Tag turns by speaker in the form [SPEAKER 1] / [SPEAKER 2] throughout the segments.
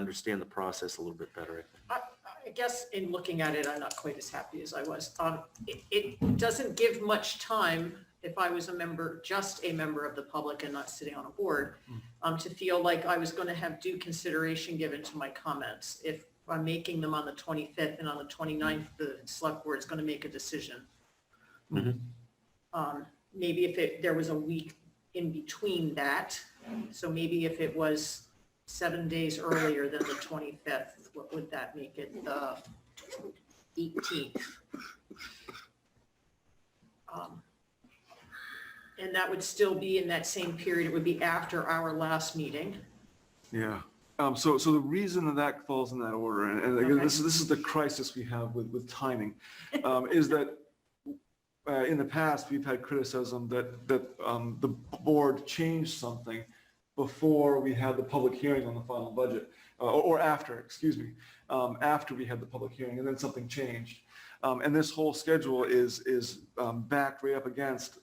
[SPEAKER 1] understand the process a little bit better. I think.
[SPEAKER 2] I, I guess in looking at it, I'm not quite as happy as I was. Um, it, it doesn't give much time, if I was a member, just a member of the public and not sitting on a board, um, to feel like I was going to have due consideration given to my comments. If I'm making them on the 25th and on the 29th, the select board is going to make a decision.
[SPEAKER 1] Mhm.
[SPEAKER 2] Um, maybe if it, there was a week in between that, so maybe if it was seven days earlier than the 25th, what would that make it, the 18th? Um, And that would still be in that same period, it would be after our last meeting.
[SPEAKER 3] Yeah. Um, so, so the reason that that falls in that order, and, and again,
[SPEAKER 2] Okay.
[SPEAKER 3] this is, this is the crisis we have with, with timing, um, is that uh, in the past, we've had criticism that, that, um, the board changed something before we had the public hearing on the final budget, uh, or, or after, excuse me, um, after we had the public hearing, and then something changed. Um, and this whole schedule is, is, um, backed right up against,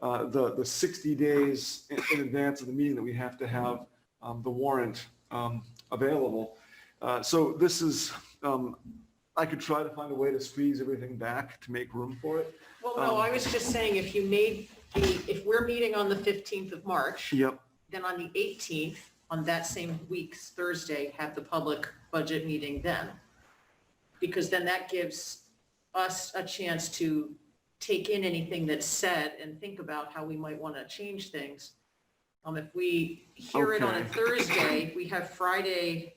[SPEAKER 3] uh, the, the 60 days in, in advance of the meeting that we have to have um, the warrant um, available. Uh, So this is, um, I could try to find a way to squeeze everything back to make room for it.
[SPEAKER 2] Well, no, I was just saying, if you made the, if we're meeting on the 15th of March,
[SPEAKER 3] Yep.
[SPEAKER 2] then on the 18th, on that same week's Thursday, have the public budget meeting then. Because then that gives us a chance to take in anything that's said and think about how we might want to change things. Um, if we hear it on a
[SPEAKER 3] Okay.
[SPEAKER 2] Thursday, we have Friday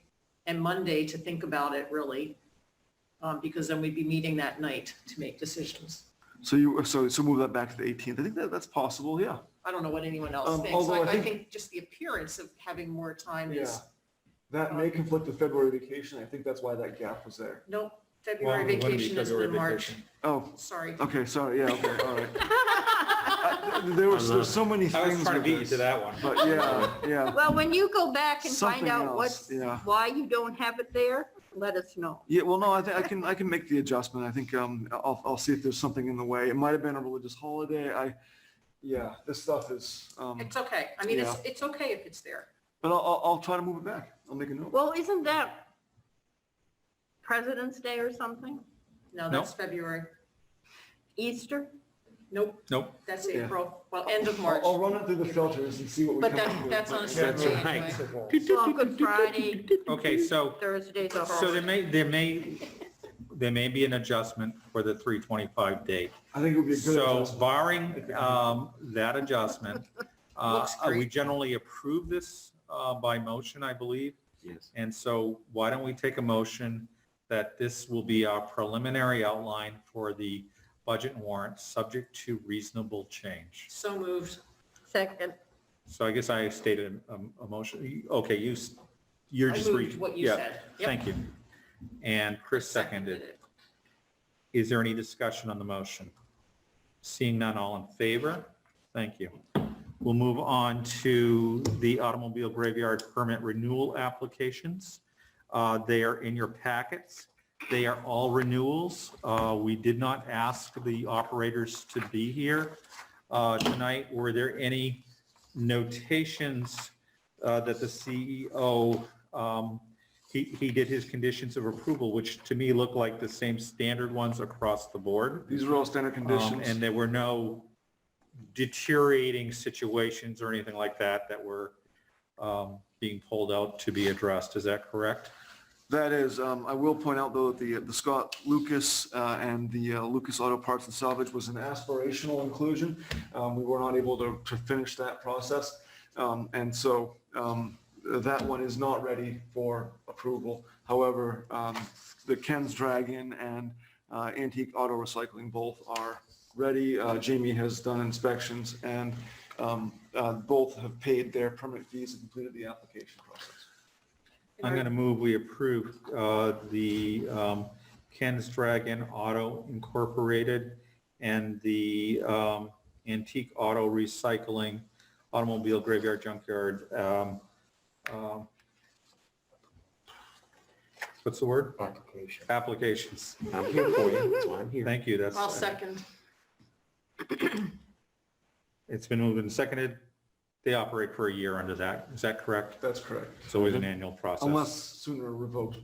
[SPEAKER 2] and Monday to think about it really. Um, because then we'd be meeting that night to make decisions.
[SPEAKER 3] So you, so, so move that back to the 18th. I think that, that's possible, yeah.
[SPEAKER 2] I don't know what anyone
[SPEAKER 3] Um,
[SPEAKER 2] else thinks. Like,
[SPEAKER 3] although I
[SPEAKER 2] I
[SPEAKER 3] think-
[SPEAKER 2] think just the appearance of having more time is
[SPEAKER 3] That may conflict with February vacation. I think that's why that gap was there.
[SPEAKER 2] Nope,
[SPEAKER 4] Well,
[SPEAKER 2] February
[SPEAKER 4] it wouldn't be
[SPEAKER 2] vacation is
[SPEAKER 4] February
[SPEAKER 2] in March,
[SPEAKER 4] vacation.
[SPEAKER 3] Oh,
[SPEAKER 2] sorry.
[SPEAKER 3] okay, sorry, yeah, okay, all right. I- There was, there's so many
[SPEAKER 4] I was
[SPEAKER 3] things
[SPEAKER 4] trying to
[SPEAKER 3] with
[SPEAKER 4] beat you to
[SPEAKER 3] this.
[SPEAKER 4] that one.
[SPEAKER 3] But yeah, yeah.
[SPEAKER 5] Well, when you go back and find
[SPEAKER 3] Something
[SPEAKER 5] out what,
[SPEAKER 3] else, yeah.
[SPEAKER 5] why you don't have it there, let us know.
[SPEAKER 3] Yeah, well, no, I think I can, I can make the adjustment. I think, um, I'll, I'll see if there's something in the way. It might have been a religious holiday. I, yeah, this stuff is, um,
[SPEAKER 2] It's okay. I mean, it's, it's okay if it's there.
[SPEAKER 3] but I'll, I'll, I'll try to move it back. I'll make a note.
[SPEAKER 5] Well, isn't that President's Day or something?
[SPEAKER 2] No,
[SPEAKER 4] No.
[SPEAKER 2] that's February.
[SPEAKER 5] Easter?
[SPEAKER 2] Nope,
[SPEAKER 4] Nope.
[SPEAKER 2] that's
[SPEAKER 3] Yeah.
[SPEAKER 2] April, well, end of March.
[SPEAKER 3] I'll, I'll run it through the filters and see what we
[SPEAKER 2] But
[SPEAKER 3] come
[SPEAKER 2] that-
[SPEAKER 3] up with.
[SPEAKER 2] that's on a
[SPEAKER 3] But-
[SPEAKER 2] That's separate- right.
[SPEAKER 5] Well, Good Friday,
[SPEAKER 4] Okay, so,
[SPEAKER 5] Thursday's a
[SPEAKER 4] so there
[SPEAKER 5] holiday.
[SPEAKER 4] may, there may, there may be an adjustment for the 325 date.
[SPEAKER 3] I think it would be a good
[SPEAKER 4] So
[SPEAKER 3] adjustment.
[SPEAKER 4] barring um, that adjustment, uh,
[SPEAKER 2] Looks
[SPEAKER 4] we
[SPEAKER 2] great.
[SPEAKER 4] generally approve this uh, by motion, I believe.
[SPEAKER 1] Yes.
[SPEAKER 4] And so why don't we take a motion that this will be our preliminary outline for the budget warrant, subject to reasonable change?
[SPEAKER 2] So moved.
[SPEAKER 5] Second,
[SPEAKER 4] So I guess I stated a, a motion, You- okay, you, s- you're
[SPEAKER 2] I
[SPEAKER 4] just
[SPEAKER 2] moved
[SPEAKER 4] reading.
[SPEAKER 2] what you
[SPEAKER 4] yeah,
[SPEAKER 2] said. Yep.
[SPEAKER 4] Thank you. And Chris seconded.
[SPEAKER 2] it.
[SPEAKER 4] Is there any discussion on the motion? Seeing none, all in favor? Thank you. We'll move on to the automobile graveyard permit renewal applications. Uh, They are in your packets. They are all renewals. Uh, We did not ask the operators to be here uh, tonight. Were there any notations uh, that the CEO um, he, he did his conditions of approval, which to me look like the same standard ones across the board.
[SPEAKER 3] These are all standard
[SPEAKER 4] Um, And
[SPEAKER 3] conditions.
[SPEAKER 4] there were no deteriorating situations or anything like that that were um, being pulled out to be addressed. Is that correct?
[SPEAKER 3] That is, um, I will point out though, that the, the Scott Lucas, uh, and the uh, Lucas Auto Parts and Salvage was an aspirational inclusion. Um, we were not able to, to finish that process. Um, and so, um, that one is not ready for approval. However, um, the Ken's Dragon and, uh, Antique Auto Recycling both are ready. Uh, Jamie has done inspections and, um, uh, both have paid their permit fees and completed the application process.
[SPEAKER 4] I'm going to move, we approve uh, the um, Ken's Dragon Auto Incorporated and the um, Antique Auto Recycling Automobile Graveyard Junkyard. um, um, What's the word?
[SPEAKER 1] Application.
[SPEAKER 4] Applications.
[SPEAKER 1] I'm here for you. That's why I'm here.
[SPEAKER 4] Thank you, that's.
[SPEAKER 2] I'll second.
[SPEAKER 4] It's been moved and seconded. They operate for a year under that. Is that correct?
[SPEAKER 3] That's correct.
[SPEAKER 4] It's always an annual process.
[SPEAKER 3] Unless sooner revoked